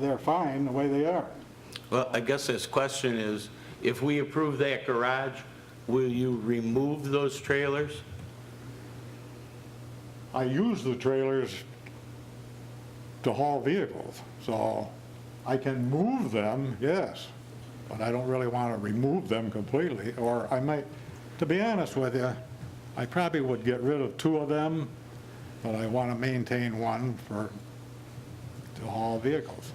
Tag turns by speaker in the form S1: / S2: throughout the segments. S1: they're fine the way they are.
S2: Well, I guess this question is, if we approve that garage, will you remove those trailers?
S1: I use the trailers to haul vehicles, so I can move them, yes, but I don't really want to remove them completely, or I might, to be honest with you, I probably would get rid of two of them, but I want to maintain one for, to haul vehicles.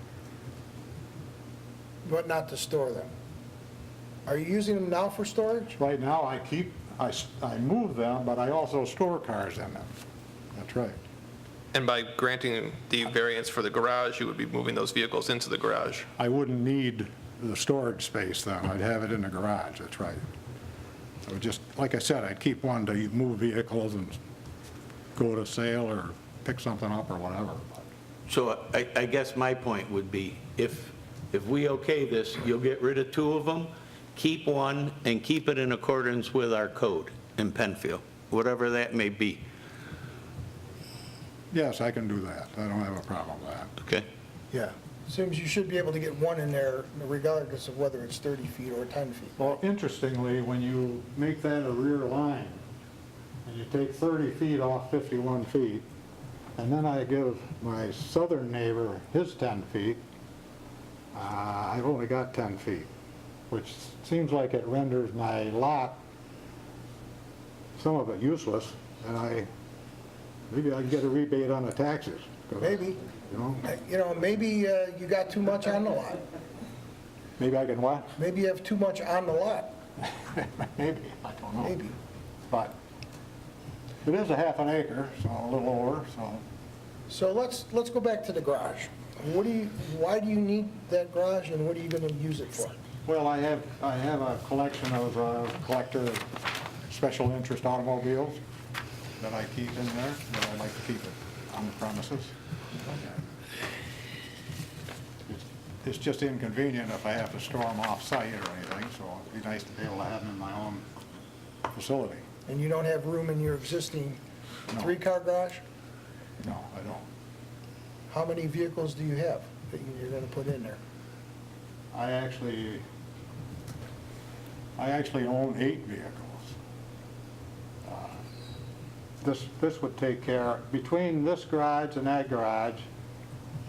S3: but not to store them. Are you using them now for storage?
S1: Right now, I keep, I, s- I move them, but I also store cars in them. That's right.
S4: And by granting the variance for the garage, you would be moving those vehicles into the garage.
S1: I wouldn't need the storage space, though. I'd have it in the garage, that's right. So just, like I said, I'd keep one to move vehicles and go to sale or pick something up or whatever.
S2: So I, I guess my point would be, if, if we okay this, you'll get rid of two of them, keep one, and keep it in accordance with our code in Penfield, whatever that may be,
S1: Yes, I can do that. I don't have a problem with that.
S2: okay?
S3: Yeah. Seems you should be able to get one in there regardless of whether it's 30 feet or 10 feet.
S1: Well, interestingly, when you make that a rear line, and you take 30 feet off 51 feet, and then I give my southern neighbor his 10 feet, uh, I've only got 10 feet, which seems like it renders my lot, some of it useless, and I, maybe I can get a rebate on the taxes. 'cause,
S3: Maybe.
S1: You know,
S3: You know, maybe uh, you got too much on the lot.
S1: maybe I can what?
S3: Maybe you have too much on the lot,
S1: Maybe, I don't know.
S3: maybe.
S1: But it is a half an acre, so a little over, so.
S3: So let's, let's go back to the garage. What do you, why do you need that garage and what are you going to use it for?
S1: Well, I have, I have a collection of uh, collector special interest automobiles that I keep in there, that I like to keep it on the premises. It's- It's just inconvenient if I have to store them off-site or anything, so it'd be nice to be able to have them in my own facility.
S3: And you don't have room in your existing
S1: No.
S3: three-car garage?
S1: No, I don't.
S3: How many vehicles do you have that you're going to put in there?
S1: I actually, I actually own eight vehicles. Uh, This, this would take care, between this garage and that garage,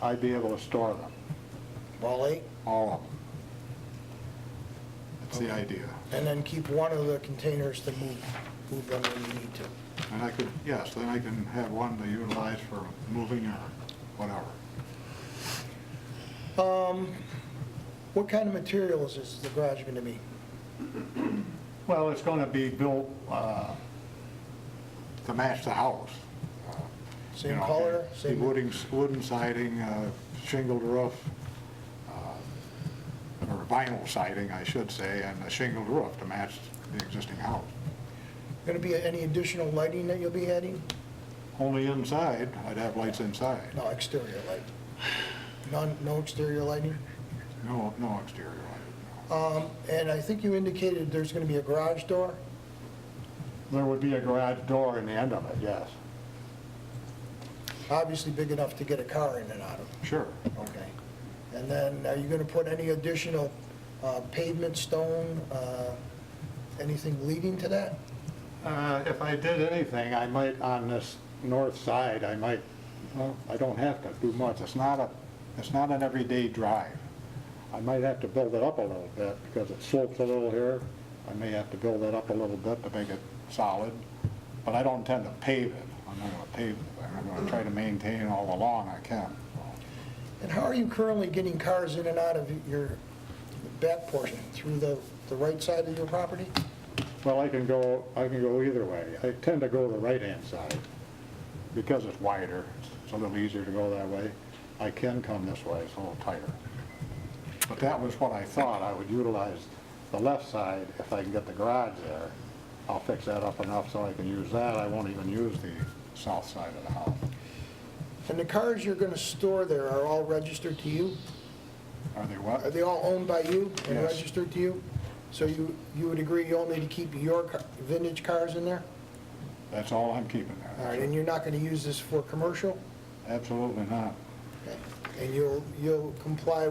S1: I'd be able to store them,
S3: All eight?
S1: all of them. That's the idea.
S3: And then keep one of the containers to move, move them when you need to.
S1: And I could, yes, then I can have one to utilize for moving or whatever.
S3: What kind of materials is the garage going to be?
S1: Well, it's going to be built uh, to match the house. Uh, you
S3: Same
S1: know,
S3: color,
S1: the
S3: same?
S1: Wooden, wooden siding, uh, shingled roof, uh, or vinyl siding, I should say, and a shingled roof to match the existing house.
S3: Going to be any additional lighting that you'll be adding?
S1: Only inside, I'd have lights inside,
S3: No, exterior light. None, no exterior lighting?
S1: no, no exterior light.
S3: Um, And I think you indicated there's going to be a garage door?
S1: There would be a garage door in the end of it, yes.
S3: Obviously big enough to get a car in and out of.
S1: Sure.
S3: Okay. And then are you going to put any additional uh, pavement, stone, uh, anything leading to that?
S1: Uh, If I did anything, I might, on this north side, I might, well, I don't have to do much. It's not a, it's not an everyday drive. I might have to build it up a little bit because it slopes a little here. I may have to build it up a little bit to make it solid, but I don't intend to pave it. I'm not going to pave it. I'm going to try to maintain all along I can.
S3: And how are you currently getting cars in and out of your back portion, through the, the right side of your property?
S1: Well, I can go, I can go either way. I tend to go the right-hand side because it's wider. It's a little easier to go that way. I can come this way, it's a little tighter. But that was what I thought, I would utilize the left side if I can get the garage there. I'll fix that up enough so I can use that. I won't even use the south side of the house.
S3: And the cars you're going to store there are all registered to you?
S1: Are they
S3: Are
S1: what?
S3: they all owned by you and
S1: Yes.
S3: registered to you? So you, you would agree only to keep your ca- vintage cars in there?
S1: That's all I'm keeping
S3: All right,
S1: there.
S3: and you're not going to use this for commercial?
S1: Absolutely not.
S3: Okay. and you'll, you'll comply